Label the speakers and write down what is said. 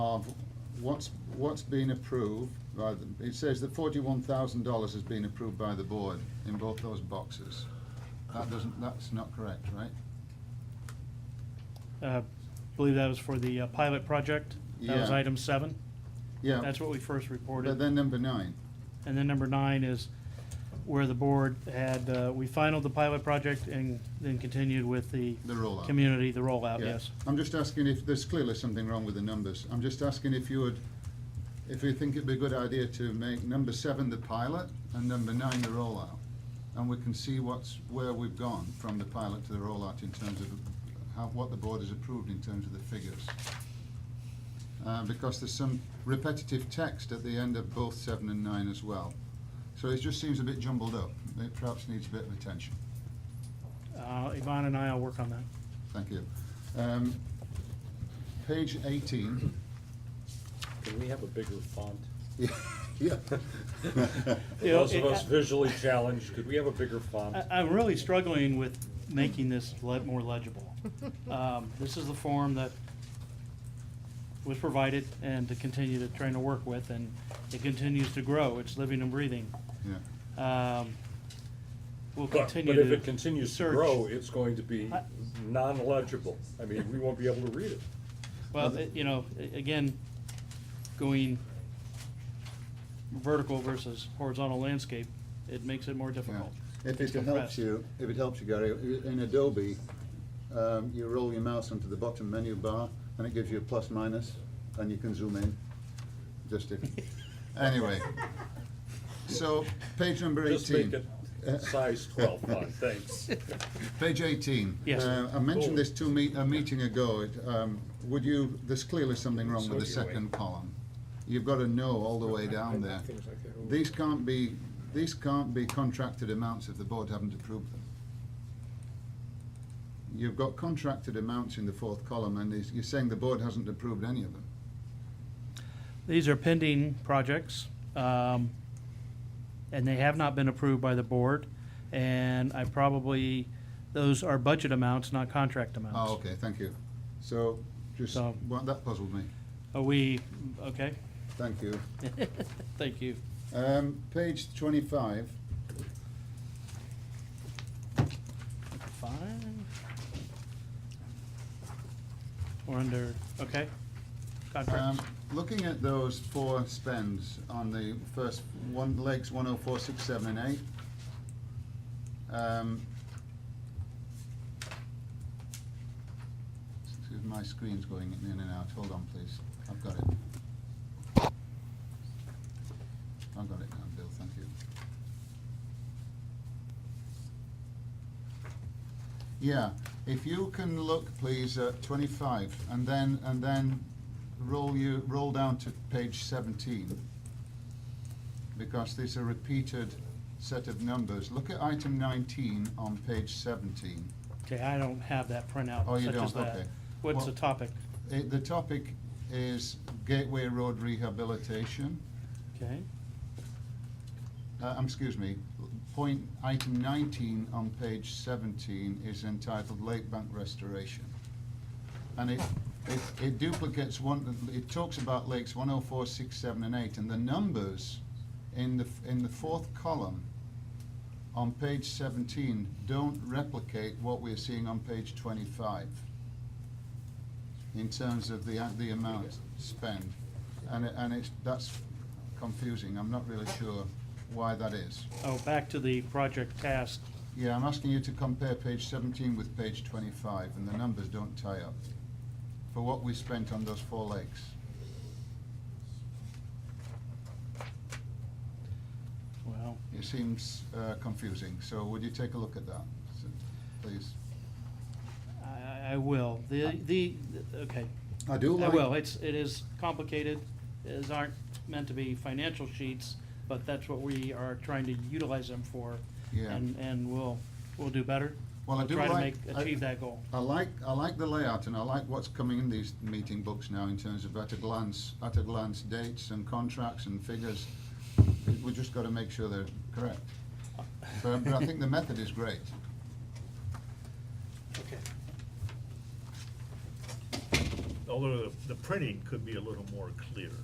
Speaker 1: of what's, what's been approved by the, it says that forty-one thousand dollars has been approved by the board in both those boxes. That doesn't, that's not correct, right?
Speaker 2: Uh, Believe that was for the uh, pilot project. That was
Speaker 1: Yeah.
Speaker 2: item seven.
Speaker 1: Yeah,
Speaker 2: That's what we first reported.
Speaker 1: but then number nine,
Speaker 2: And then number nine is where the board had, uh, we finalized the pilot project and then continued with the
Speaker 1: the rollout.
Speaker 2: community, the rollout,
Speaker 1: Yeah.
Speaker 2: yes.
Speaker 1: I'm just asking if, there's clearly something wrong with the numbers. I'm just asking if you would, if you think it'd be a good idea to make number seven the pilot and number nine the rollout. And we can see what's, where we've gone from the pilot to the rollout in terms of how, what the board has approved in terms of the figures. Uh, because there's some repetitive text at the end of both seven and nine as well. So it just seems a bit jumbled up. It perhaps needs a bit of attention.
Speaker 2: Uh, Yvonne and I will work on that.
Speaker 1: Thank you. Um, Page 18.
Speaker 3: Can we have a bigger font?
Speaker 1: Yeah.
Speaker 2: You know,
Speaker 3: Those of
Speaker 2: it- Uh,
Speaker 3: us visually challenged, could we have a bigger font?
Speaker 2: I, I'm really struggling with making this le- more legible. Um, This is the form that was provided and to continue to trying to work with, and it continues to grow. It's living and breathing.
Speaker 1: Yeah.
Speaker 2: Um, We'll
Speaker 3: But,
Speaker 2: continue
Speaker 3: but
Speaker 2: to.
Speaker 3: if it continues to
Speaker 2: search.
Speaker 3: grow, it's going to be
Speaker 2: I-
Speaker 3: non-legible. I mean, we won't be able to read it.
Speaker 2: Well, it- you know, a- again, going vertical versus horizontal landscape, it makes it more
Speaker 1: Yeah.
Speaker 2: difficult.
Speaker 1: If
Speaker 2: It's
Speaker 1: it helps
Speaker 2: compressed.
Speaker 1: you, if it helps you, Gary, i- in Adobe, um, you roll your mouse onto the bottom menu bar and it gives you a plus minus and you can zoom in. Just if, anyway. So, page number 18.
Speaker 3: Just make it size twelve font, thanks.
Speaker 1: Page 18.
Speaker 2: Yes.
Speaker 1: Uh, I mentioned this two meet, a meeting ago. It, um, Would you, there's clearly something wrong with the second column. You've got a no all the way down there. These can't be, these can't be contracted amounts if the board haven't approved them. You've got contracted amounts in the fourth column and is- you're saying the board hasn't approved any of them.
Speaker 2: These are pending projects, um, and they have not been approved by the board. And I probably, those are budget amounts, not contract amounts.
Speaker 1: Oh, okay, thank you. So, just,
Speaker 2: So-
Speaker 1: well, that puzzled me.
Speaker 2: Are we, okay,
Speaker 1: Thank you.
Speaker 2: thank you.
Speaker 1: Um, Page 25,
Speaker 2: Fine. We're under, okay,
Speaker 1: Um,
Speaker 2: contract,
Speaker 1: Looking at those four spends on the first one, legs one oh four, six, seven, and eight. um, Excuse my screen's going in and out, hold on please, I've got it. I've got it now, Bill, thank you. Yeah, if you can look, please, at twenty-five, and then, and then roll you, roll down to page seventeen. Because these are repeated set of numbers. Look at item nineteen on page seventeen.
Speaker 2: okay, I don't have that printout
Speaker 1: Oh, you
Speaker 2: such as
Speaker 1: don't?
Speaker 2: that.
Speaker 1: Okay.
Speaker 2: What's
Speaker 1: Well-
Speaker 2: the topic?
Speaker 1: It, the topic is Gateway Road rehabilitation.
Speaker 2: Okay,
Speaker 1: Uh, um, excuse me, point, item nineteen on page seventeen is entitled Lake Bank Restoration. And it, it, it duplicates one, it talks about lakes one oh four, six, seven, and eight, and the numbers in the, f- in the fourth column on page seventeen don't replicate what we're seeing on page twenty-five in terms of the, the amount spent. And, it- and it's, that's confusing, I'm not really sure why that is.
Speaker 2: oh, back to the project task.
Speaker 1: Yeah, I'm asking you to compare page seventeen with page twenty-five, and the numbers don't tie up for what we spent on those four lakes.
Speaker 2: Well,
Speaker 1: It seems uh, confusing, so would you take a look at that, s- please?
Speaker 2: I- I, I will. The, the, okay.
Speaker 1: I do
Speaker 2: I
Speaker 1: like.
Speaker 2: will. It's, it is complicated. These aren't meant to be financial sheets, but that's what we are trying to utilize them for.
Speaker 1: Yeah.
Speaker 2: And, and we'll, we'll do better.
Speaker 1: Well, I do
Speaker 2: Try to make,
Speaker 1: like- I-
Speaker 2: achieve that goal.
Speaker 1: I like, I like the layout and I like what's coming in these meeting books now in terms of at a glance, at a glance dates and contracts and figures. We just gotta make sure they're correct. But, but I think the method is great.
Speaker 4: although the, the printing could be a little more clear.